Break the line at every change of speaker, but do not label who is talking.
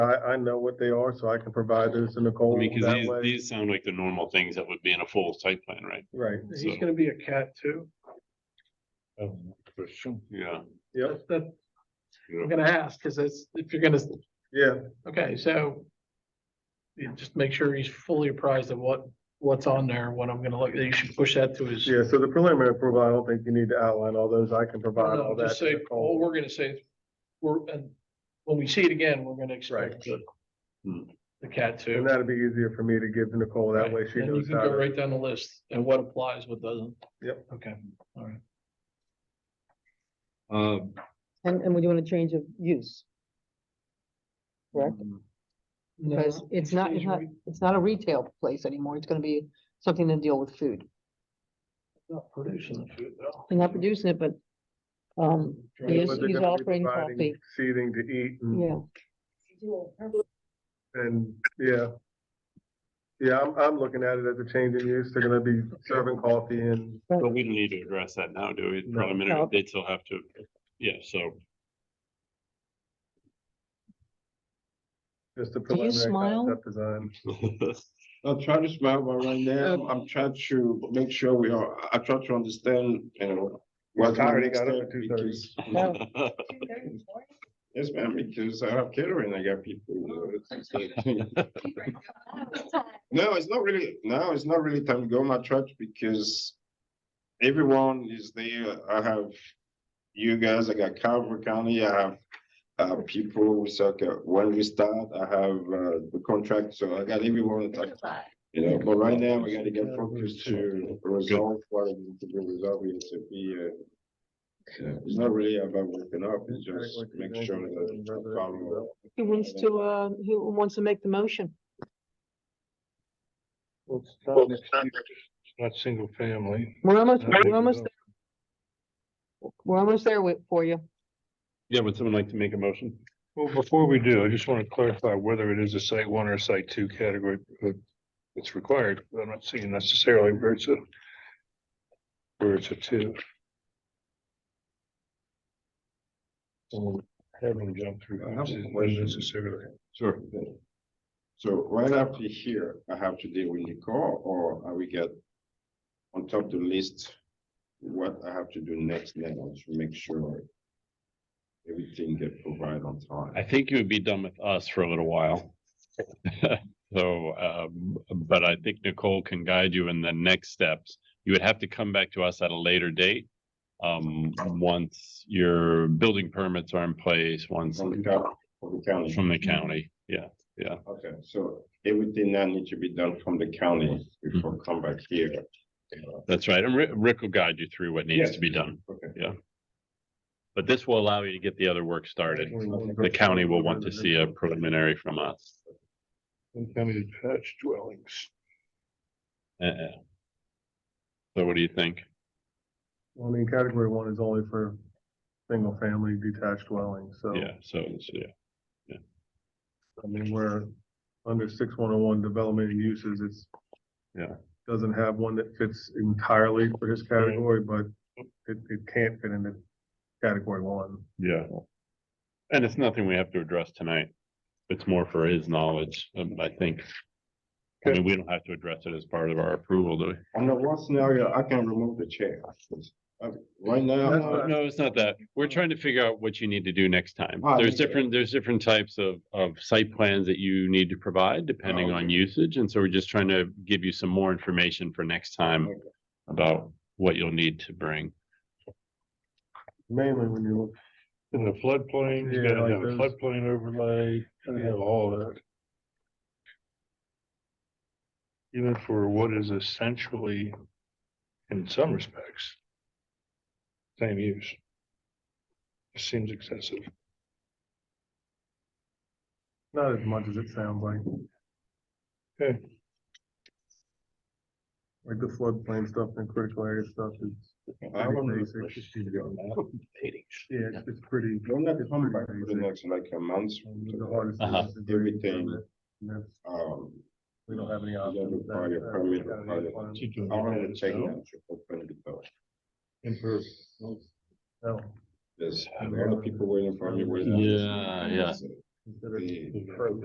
I know what they are, so I can provide those to
I
Nicole
mean, cause
that
these,
way.
these sound like the normal things that would be in a full site plan, right?
Right,
He's
So-
gonna be a cat too.
Oh,
Yeah.
yeah,
That's, that,
yeah.
I'm gonna ask, cause that's, if you're gonna,
yeah,
okay, so. You just make sure he's fully apprised of what, what's on there, what I'm gonna look, you should push that to his.
yeah, so the preliminary approval, I don't think you need to outline all those, I can provide all that
Just
to
uh, say, all
Nicole.
we're gonna say, is we're, and when we see it again, we're gonna expect the.
Hmm.
The cat
And
too.
that'd be easier for me to give to Nicole, that way she
Then you
knows
can
how
go
to.
right down the list and what applies, what doesn't.
Yep.
Okay, all right.
Um,
And, and would you want to change of use? Correct? Because
No,
it's
he
not,
stays
it's not,
right-
it's not a retail place anymore. It's gonna be something to deal with food.
Not producing the food though.
They're not producing it, but, um,
Right,
he's,
but they're
he's
gonna be
offering
providing
coffee.
Seating to eat and,
Yeah,
and, yeah. Yeah, I'm, I'm looking at it as a change in use, they're gonna be serving coffee and,
But we don't need to address that now, do we?
No.
Preliminary,
No.
they'd still have to, yeah, so.
just the
Do you
preliminary
smile?
concept design.
I'm trying to smile, but right now, I'm trying to make sure we are, I try to understand, you know. what's my
Already
next
got up
step
at 2:30.
because-
No.
Yes, ma'am, because I have catering, I got people. you know. No, it's not really, no, it's not really time to go my church because everyone is there. I have you guys, I got Calvary County, I have uh, people who suck at- when we start, I have uh, the contract, so I got everyone. like, You know, but right now, we gotta get focused to resolve what it is to be resolved, we have to be, uh. It's not really about waking up, it's just make sure that. we follow.
he wants to, uh, he wants to make the motion.
Well, it's not, it's not single family.
We're almost,
Not
we're almost,
single-
we're almost there with, for you.
Yeah, would someone like to make a motion?
Well, before we do, I just want to clarify whether it is a site one or a site two category. uh, It's required, but I'm not seeing necessarily where it's a. Where it's a two. And having jump through.
I have a
hoops is
question.
Necessarily.
Sure.
So right after here, I have to deal with Nicole, or I will get on top of the list. What I have to do next now to make sure everything get provided on time.
I think you would be done with us for a little while. So, um, but I think Nicole can guide you in the next steps. You would have to come back to us at a later date. Um, once your building permits are in place, once
From the county, from the county.
from the county, yeah.
Okay, so everything that need to be done from the county before come back here.
That's right. And Rick, Rick will guide you through what needs
Yes.
to be done.
Okay.
But this will allow you to get the other work started. The county will want to see a preliminary from us.
And family detached dwellings.
Uh-uh. So what do you think?
Well, I mean, category one is only for single family detached dwellings, so.
Yeah, so, it's- yeah.
I mean, we're under six one oh one development and uses, it's.
Yeah. Mm-hmm.
Doesn't have one that fits entirely for this category, but it, it can't fit into category one.
Yeah. And it's nothing we have to address tonight. It's more for his knowledge, um, I think. I mean, we don't have to address it as part of our approval, do we?
Under one scenario, I can remove the chair. Uh, Right now,
That's-
No, no, it's not that. We're trying to figure out what you need to do next time.
Ah,
There's
okay.
different, there's different types of, of site plans that you need to provide depending
Oh,
on
okay.
usage. And so we're just trying to give you some more information for next time
Okay.
about what you'll need to bring.
Mainly when you look,
In the floodplain, you
Yeah,
gotta
like
have a
those. Uh-huh.
floodplain overlay, gotta have all that. Even for what is essentially, in some respects, same use. Seems excessive.
not as much as it sounds like.
Okay.
Like the floodplain stuff and critical area stuff is,
I
pretty
remember
basic. yeah, it's- it's pretty.
don't let it come back for
Pretty
the
basic.
next like a month.
The hardest thing
Uh-huh.
is to do it,
Everything.
and that's-
Um,
We don't have any
gotta
options. with
require
that.
permit,
That's gotta be
require-
fine.
I want to check that to open the door.
No,
There's a lot of people waiting for me. waiting.
Yeah, yeah.
consider
They-
pro-